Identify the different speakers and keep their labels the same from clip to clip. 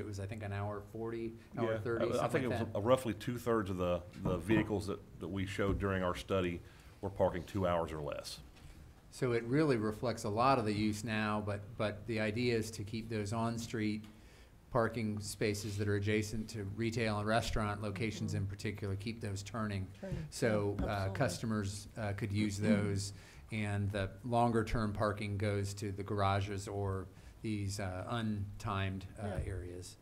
Speaker 1: It was, I think, an hour forty,
Speaker 2: Yeah.
Speaker 1: hour thirty,
Speaker 2: I- I think
Speaker 1: something
Speaker 2: it
Speaker 1: like
Speaker 2: was
Speaker 1: that.
Speaker 2: Roughly two-thirds of the, the vehicles that, that we showed during our study were parking two hours or less.
Speaker 1: So it really reflects a lot of the use now, but, but the idea is to keep those on-street parking spaces that are adjacent to retail and restaurant locations in particular, keep those turning. So, uh,
Speaker 3: Mm-hmm. Absolutely.
Speaker 1: customers, uh, could use those, and the longer-term parking goes to the garages or these, uh, untimed, uh,
Speaker 3: Yeah.
Speaker 1: areas.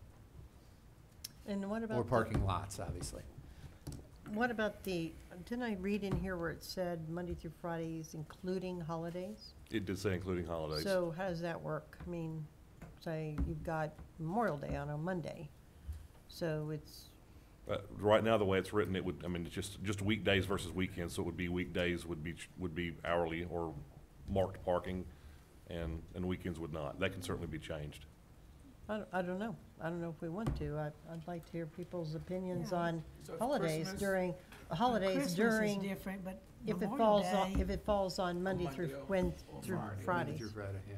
Speaker 3: And what about?
Speaker 1: Or
Speaker 3: the-
Speaker 1: parking lots, obviously.
Speaker 3: What about the, didn't I read in here where it said Monday through Fridays, including holidays?
Speaker 2: It did say including holidays.
Speaker 3: So how does that work? I mean, say you've got Memorial Day on a Monday, so it's,
Speaker 2: Uh, Right now, the way it's written, it would, I mean, it's just, just weekdays versus weekends, so it would be weekdays would be, ch- would be hourly or marked parking, and, and weekends would not. That can certainly be changed.
Speaker 3: I don't, I don't know. I don't know if we want to. I, I'd like to hear people's opinions
Speaker 4: Yeah.
Speaker 3: on
Speaker 5: So if
Speaker 3: holidays
Speaker 5: Christmas-
Speaker 3: during, holidays
Speaker 4: Christmas is
Speaker 3: during,
Speaker 4: different, but
Speaker 3: if it
Speaker 4: Memorial
Speaker 3: falls, on-
Speaker 4: Day,
Speaker 3: if it falls on Monday through,
Speaker 5: Monday or-
Speaker 3: when,
Speaker 5: or
Speaker 3: through
Speaker 5: Friday.
Speaker 3: Fridays.
Speaker 1: Through Friday, yeah.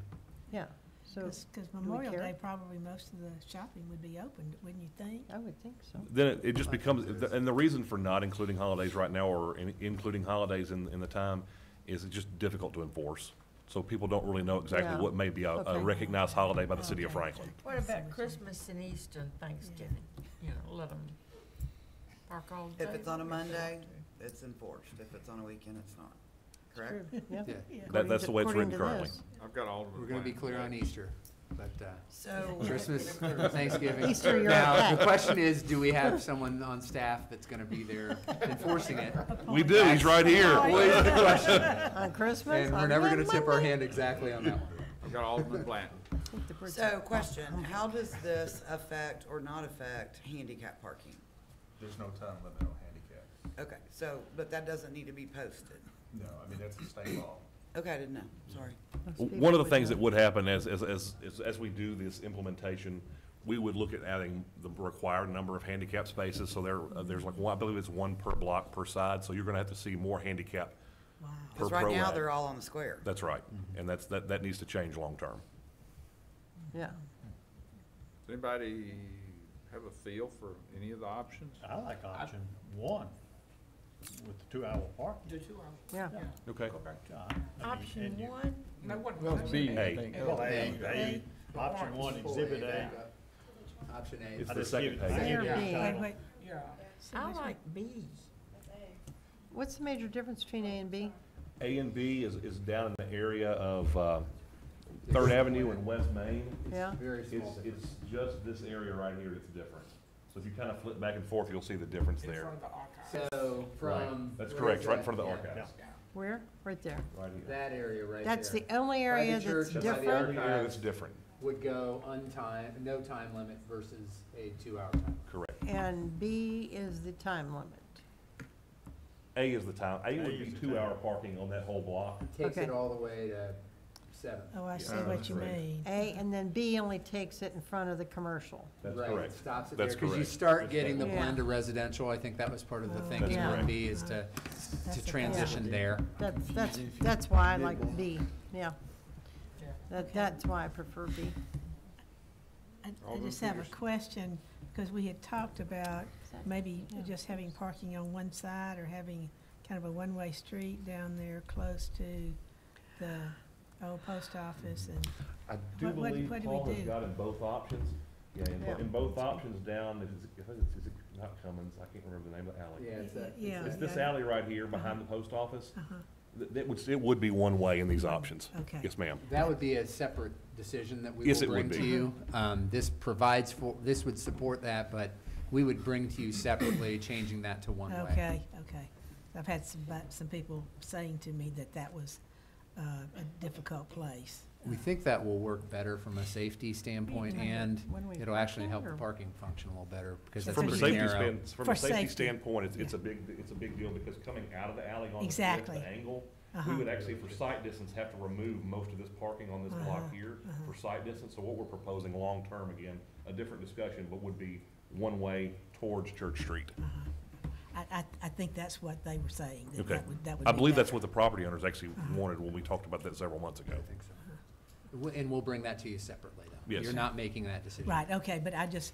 Speaker 3: Yeah, so
Speaker 4: because Memorial
Speaker 3: care?
Speaker 4: Day, probably most of the shopping would be open, wouldn't you think?
Speaker 3: I would think so.
Speaker 2: Then it, it just becomes, and the reason for not including holidays right now, or in- including holidays in, in the time, is it's just difficult to enforce. So people don't really know exactly
Speaker 3: Yeah.
Speaker 2: what may be a, a
Speaker 3: Okay.
Speaker 2: recognized holiday by the city of Franklin.
Speaker 6: What about Christmas and Easter and Thanksgiving? You know, let them park all day.
Speaker 7: If it's on a
Speaker 6: whatever they
Speaker 7: Monday,
Speaker 6: want to.
Speaker 7: it's enforced. If it's on a weekend, it's not. Correct?
Speaker 3: True, yeah.
Speaker 1: Yeah.
Speaker 2: That, that's the way it's
Speaker 3: According
Speaker 2: written
Speaker 3: to
Speaker 2: currently.
Speaker 3: this.
Speaker 5: I've got all of
Speaker 1: We're gonna be clear on Easter, but, uh,
Speaker 6: So,
Speaker 1: Christmas, Thanksgiving.
Speaker 3: Easter, you're
Speaker 1: Now,
Speaker 3: okay.
Speaker 1: the question is, do we have someone on staff that's gonna be there enforcing it?
Speaker 3: Oh
Speaker 2: We do, he's right here.
Speaker 1: Always the question,
Speaker 3: On Christmas?
Speaker 1: and we're
Speaker 3: on
Speaker 1: never
Speaker 3: Mon-
Speaker 1: gonna tip our
Speaker 3: Monday?
Speaker 1: hand exactly on that one.
Speaker 5: I've got Alderman Blanton.
Speaker 3: I think the bird's-
Speaker 7: So question, how does this affect or not affect handicap parking?
Speaker 8: There's no time limit on handicap.
Speaker 7: Okay, so, but that doesn't need to be posted.
Speaker 8: No, I mean, that's a state law.
Speaker 7: Okay, I didn't know, sorry.
Speaker 3: most people
Speaker 2: One of the
Speaker 3: would
Speaker 2: things that
Speaker 3: know.
Speaker 2: would happen as, as, as, as- as we do this implementation, we would look at adding the required number of handicap spaces. So there, uh, there's like, one I believe it's one per block per side, so you're gonna have to see more handicap. per
Speaker 7: Because right now,
Speaker 2: prorate.
Speaker 7: they're all Mm-hmm. on the square.
Speaker 2: That's right, and that's, that, that needs to change long-term.
Speaker 3: Yeah,
Speaker 5: Does anybody have a feel for any of the options?
Speaker 9: I like option one with the two-hour parking.
Speaker 3: yeah.
Speaker 2: Okay.
Speaker 6: option one,
Speaker 5: No one.
Speaker 2: Hey,
Speaker 9: Well, A, A, option one, exhibit A.
Speaker 1: Option A.
Speaker 2: It's
Speaker 9: I
Speaker 2: the
Speaker 9: just give
Speaker 2: second
Speaker 9: it- I
Speaker 2: page.
Speaker 9: give
Speaker 3: There
Speaker 9: it a
Speaker 3: be.
Speaker 4: Wait,
Speaker 9: title.
Speaker 4: wait,
Speaker 6: I like B.
Speaker 3: What's the major difference between A and B?
Speaker 2: A and B is, is down in the area of, uh, Third Avenue and West Main.
Speaker 3: Yeah,
Speaker 1: Very
Speaker 2: It's,
Speaker 1: small.
Speaker 2: it's just this area right here that's different. So if you kind of flip back and forth, you'll see the difference there.
Speaker 1: So from.
Speaker 2: That's
Speaker 1: where
Speaker 2: correct,
Speaker 1: is
Speaker 2: right in
Speaker 1: that?
Speaker 2: front of the
Speaker 1: Yeah,
Speaker 2: archives,
Speaker 3: where? Right there.
Speaker 2: right here.
Speaker 1: That area right there.
Speaker 3: That's the only area that's
Speaker 1: church and by the
Speaker 3: different?
Speaker 1: arch-
Speaker 2: The area that's different,
Speaker 1: Would go untimed, no time limit versus a two-hour time.
Speaker 2: correct.
Speaker 3: And B is the time limit.
Speaker 2: A is the time, A would
Speaker 9: A
Speaker 2: be
Speaker 9: is the
Speaker 2: two-hour parking on that whole block.
Speaker 1: Takes it
Speaker 3: Okay.
Speaker 1: all the way to seven.
Speaker 4: oh, I see
Speaker 8: Yeah,
Speaker 4: what
Speaker 8: that's
Speaker 4: you
Speaker 8: right.
Speaker 4: mean.
Speaker 3: A, and then B only takes it in front of the commercial.
Speaker 2: That's
Speaker 1: Right, it
Speaker 2: correct.
Speaker 1: Stops it there,
Speaker 2: That's
Speaker 1: because you
Speaker 2: correct.
Speaker 1: start getting the
Speaker 3: Yeah.
Speaker 1: blend of residential, I think that was part of the thinking
Speaker 2: That's
Speaker 1: on
Speaker 2: correct.
Speaker 1: B, is to,
Speaker 4: That's
Speaker 1: to
Speaker 4: the
Speaker 1: transition there.
Speaker 3: That's, that's, that's why I like B, yeah. That, that's why I prefer B.
Speaker 4: I- I
Speaker 5: Alderman
Speaker 4: just have a
Speaker 5: Peters.
Speaker 4: question, because we had talked about maybe just having parking on one side or having kind of a one-way street down there close to the old post office and,
Speaker 2: I do
Speaker 4: What- what-
Speaker 2: believe
Speaker 4: what do we
Speaker 2: Paul has
Speaker 4: do?
Speaker 2: got in both options. Yeah, in, bo-
Speaker 3: Yeah.
Speaker 2: in both options down, it's, I think it's, is it not Cummins, I can't remember the name of the alley.
Speaker 1: Yeah, it's that. it's
Speaker 4: Yeah.
Speaker 2: It's
Speaker 1: that-
Speaker 2: this alley right here behind the post office.
Speaker 4: uh-huh,
Speaker 2: Th- That would, it would be one way in these options.
Speaker 4: okay.
Speaker 2: Yes, ma'am.
Speaker 1: That would be a separate decision that we
Speaker 2: Yes,
Speaker 1: will
Speaker 2: it would
Speaker 1: bring to
Speaker 2: be.
Speaker 1: you. Um, this provides for, this would support that, but we would bring to you separately, changing that to one way.
Speaker 4: Okay, okay. I've had some, bu- some people saying to me that that was uh, a difficult place.
Speaker 1: We think that will work better from a safety standpoint,
Speaker 3: When we-
Speaker 1: and
Speaker 3: when we
Speaker 1: it'll actually help the
Speaker 3: park
Speaker 1: parking function a little better, because that's
Speaker 2: From a
Speaker 1: pretty
Speaker 2: safety
Speaker 1: narrow.
Speaker 2: span, from
Speaker 4: For
Speaker 2: a safety
Speaker 4: safety.
Speaker 2: standpoint, it's, it's a big, it's a big deal because coming out of the alley on the fifth,
Speaker 4: Exactly.
Speaker 2: the angle, we
Speaker 4: Uh-huh.
Speaker 2: would actually, for sight distance, have to remove most of this parking on this
Speaker 4: Uh-huh,
Speaker 2: block here for sight distance. So what we're proposing long-term, again, a different discussion, but would be one-way towards Church Street.
Speaker 4: I, I, I think that's what they were saying, that
Speaker 2: Okay.
Speaker 4: that would, that would
Speaker 2: I
Speaker 4: be
Speaker 2: believe that's
Speaker 4: better. Uh-huh.
Speaker 2: what the property owners actually wanted when we talked about that several months ago.
Speaker 1: I think so. W- And we'll bring that to you separately, though.
Speaker 2: Yes.
Speaker 1: You're not making that decision.
Speaker 4: Right, okay, but I just,